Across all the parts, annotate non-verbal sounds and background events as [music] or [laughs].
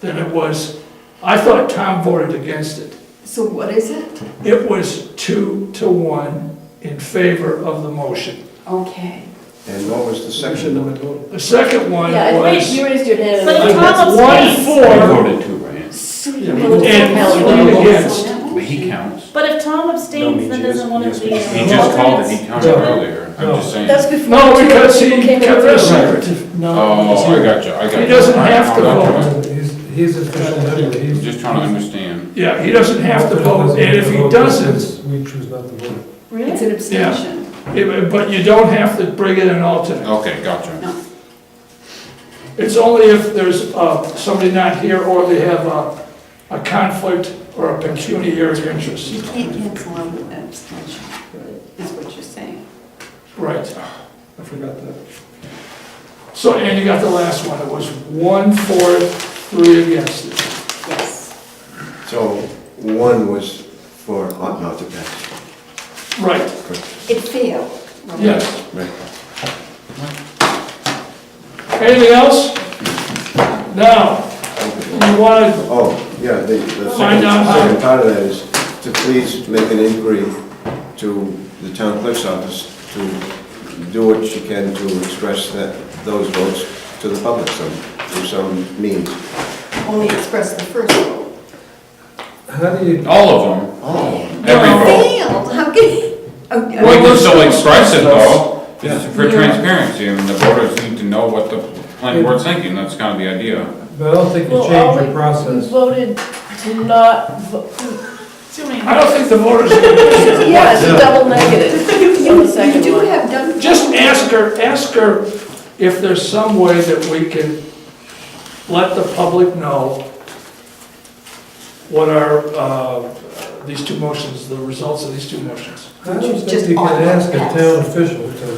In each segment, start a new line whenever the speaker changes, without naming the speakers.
than it was, I thought Tom voted against it.
So what is it?
It was two to one in favor of the motion.
Okay.
And what was the section of it?
The second one
Yeah, I raised,
was
you raised your hand.
But
and-
Tom abstains.
I
one
voted too, right?
So
Yeah,
you
we-
voted
and
for
three
Miller.
against.
So
But
now-
he counts.
But if Tom
No,
abstains,
means
then
yes-
doesn't one of
yes,
the.
means
He just called it, he counted
No.
earlier, I'm just saying.
That's before.
No,
two
because he
people came in
kept
the room.
us secretive.
Oh, I got you, I got you.
He doesn't have to
All right,
vote.
He's, he's official member,
I'm
he's.
Just trying to understand.
Yeah, he doesn't have to vote, and if he doesn't,
We choose not to vote.
It's an abstention.
it- but you don't have to bring in an alternate.
Okay, gotcha.
It's only if there's uh, somebody not here or they have a a conflict or a pecuniary interest.
You can't cancel out an abstention, is what you're saying.
Right.
I forgot that.
So, and you got the last one, it was one for, three against it.
Yes.
So one was for oh, ought not to pass.
Right,
It failed. right?
yes.
Right.
Anything else? Now, you wanna,
Oh, yeah, the, the
Find
second,
out how-
second part of that is to please make an inquiry to the town clerk's office to do what she can to express that, those votes to the public some, through some means.
Only expressed the first vote.
How do you,
All of them,
Oh.
every
It
vote.
Failed, how can you? oh, yeah.
We can still express it though,
Yeah.
It's for transparency, and the voters need to know what the planning board's thinking, that's kind of the idea.
but I don't think you
Well,
change
all
your
we- We
process.
voted to not, vo-
Too many.
I don't think the voters, are gonna-
yeah, it's a double negative.
[laughs] You you do have done.
just ask her, ask her if there's some way that we can let the public know what are, uh, these two motions, the results of these two motions.
I don't
Just
think you
all
can ask a
pass.
town official to,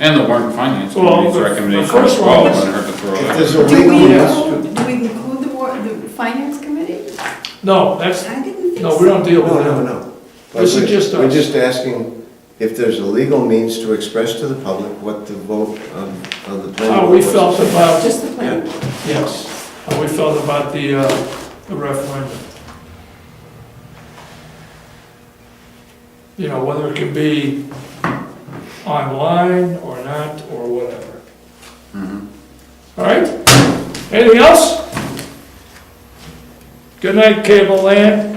And the warrant and finance
Well,
committee's
the- the
recommendation
first
as well,
one was-
wouldn't hurt to throw
If
that.
there's a
Do we
legal,
include, do we include the war, the finance committee?
No, that's,
I didn't think so.
no, we don't deal with
no,
that.
no, no.
This is
We're-
just
We're
us.
just asking if there's a legal means to express to the public what the vote of, of the planning board.
How we
was.
felt about,
Just the planning.
Yeah.
yes, how we felt about the uh, the referendum. You know, whether it can be online or not, or whatever. All right? Anything else? Good night, Cable Land.